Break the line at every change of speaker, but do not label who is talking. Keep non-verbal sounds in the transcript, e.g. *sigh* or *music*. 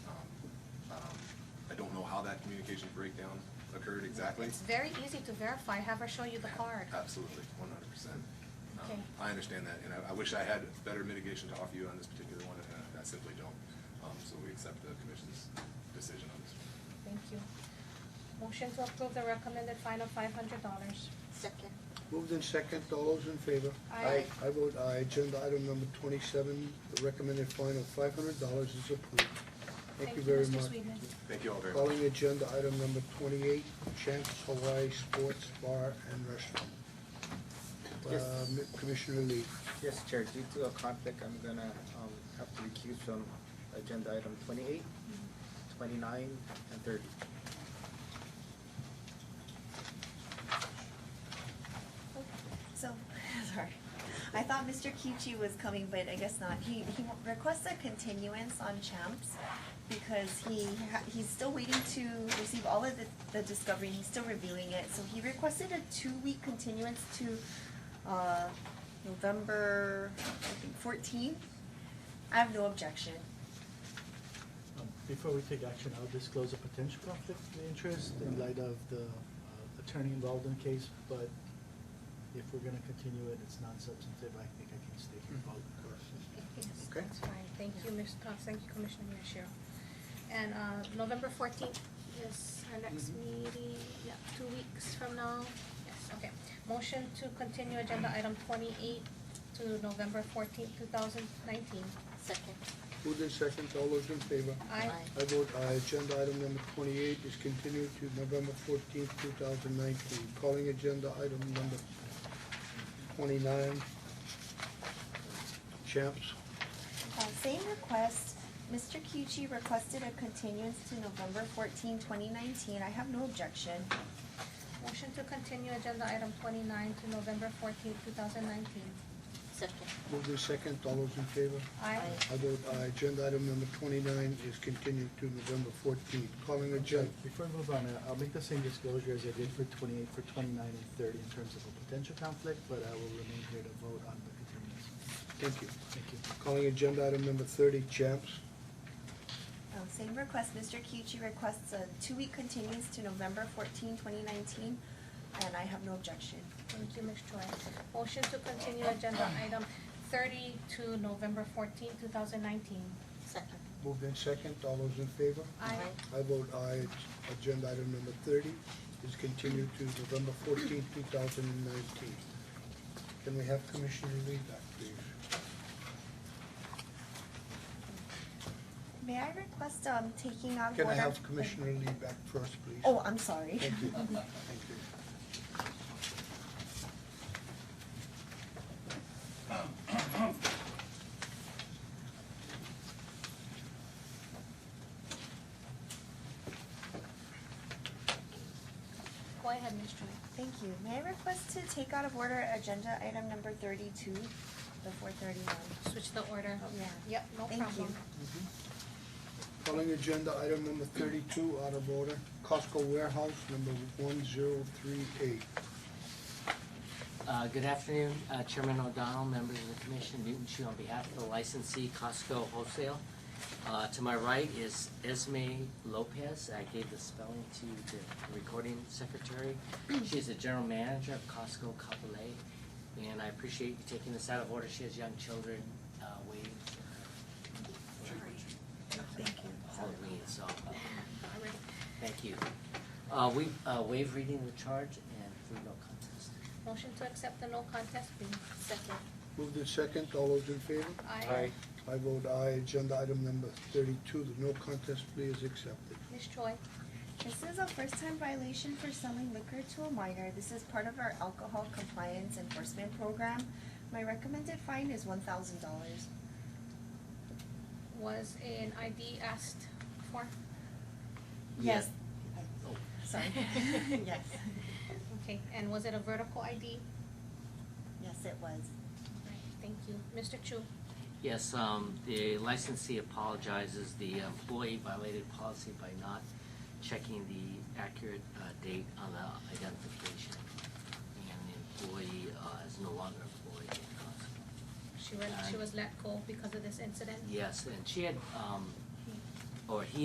Um, communication breakdown occurred exactly? Uh.
It's very easy to verify, have her show you the card.
Absolutely, one hundred percent. Um,
Okay.
I understand that, and I, I wish I had better mitigation to offer you on this particular one, and I- I simply don't. Um, so we accept the commission's decision on this.
Thank you. Motion to approve the recommended fine of five hundred dollars.
Second.
Moved in second, all those in favor?
Aye.
I vote aye, agenda item number twenty-seven, the recommended fine of five hundred dollars is approved. Thank you very
Mr.
much.
Sweetman.
Thank you all very much.
Calling agenda item number twenty-eight, Champs Hawaii Sports Bar and Restaurant.
Yes.
Uh, Mi- Commissioner Lee,
Yes, Chair, due to a conflict, I'm gonna um, have to recuse from agenda item twenty-eight, twenty-nine, and thirty.
So, *laughs* sorry. I thought Mr. Kichi was coming, but I guess not. He, he requests a continuance on Champs because he, ha- he's still waiting to receive all of the, the discovery. He's still reviewing it. So he requested a two-week continuance to, uh, November, I think, fourteenth. I have no objection.
Um, Before we take action, I'll disclose a potential conflict of interest in light of the uh, attorney involved in the case, but if we're gonna continue it, it's non-substantive, I think I can stay here.
Yes,
Okay.
that's fine. Thank you, Ms., uh, thank you, Commissioner Miyashiro. And, uh, November fourteenth is our next meeting, yeah, two weeks from now. Yes, okay. Motion to continue agenda item twenty-eight to November fourteenth, two thousand nineteen.
Second.
moved in second, all those in favor?
Aye.
I vote aye, agenda item number twenty-eight is continued to November fourteenth, two thousand nineteen. Calling agenda item number twenty-nine, Champs
Uh, same request, Mr. Kichi requested a continuance to November 14, 2019. I have no objection.
Motion to continue agenda item twenty-nine to November fourteenth, two thousand nineteen.
Second.
Moved in second, all those in favor?
Aye.
I vote aye. Agenda item number twenty-nine is continued to November fourteenth. Calling agenda,
Before I move on, uh, I'll make the same disclosure as I did for twenty-eight, for twenty-nine and thirty in terms of a potential conflict, but I will remain here to vote on the continuance.
thank you.
Thank you.
Calling agenda item number thirty, Champs.
Um, same request, Mr. Kiuchi requests a two-week continuance to November 14, 2019, and I have no objection.
Thank you, Ms. Choi. Motion to continue agenda item thirty to November fourteenth, two thousand nineteen.
Second.
Moved in second, all those in favor?
Aye.
I vote aye. Agenda item number thirty is continued to November fourteenth, two thousand and nineteen. Can we have Commissioner Lee back, please?
May I request, um, taking out
Can I
order-
have Commissioner Lee back first, please?
Oh, I'm sorry.
Thank you, thank you.
Go ahead, Ms. Choi.
Thank you. May I request to take out of order agenda item number thirty-two, the four thirty-one?
Switch the order.
Oh, yeah.
Yep, no
Thank you.
problem.
Calling agenda item number thirty-two out of order, Costco Warehouse number one zero three eight.
Uh, Good afternoon, uh, Chairman O'Donnell, members of the commission, Newton Chu on behalf of the licensee Costco Wholesale. Uh, To my right is Esme Lopez. I gave the spelling to the recording secretary. She's the general manager of Costco Capole, and I appreciate you taking this out of order. She has young children uh, waiting for her.
Thank you.
Halloween, so, uh, thank you. Uh, We uh, waive reading the charge and through no contest.
Motion to accept the no contest plea.
Second.
Moved in second, all those in favor?
Aye.
I vote aye, agenda item number thirty-two, the no contest plea is accepted.
Ms. Choi,
This is a first-time violation for selling liquor to a minor. This is part of our alcohol compliance enforcement program. My recommended fine is one thousand dollars.
was an ID asked for?
Yes.
Oh.
Sorry. Yes,
Okay, and was it a vertical ID?
yes, it was.
Right, thank you. Mr. Chu,
Yes, um, the licensee apologizes, the employee violated policy by not checking the accurate, uh, date on the identification. And the employee, uh, is no longer employed at Costco.
she was, she was let go because of this incident?
Yes, and she had, um, or he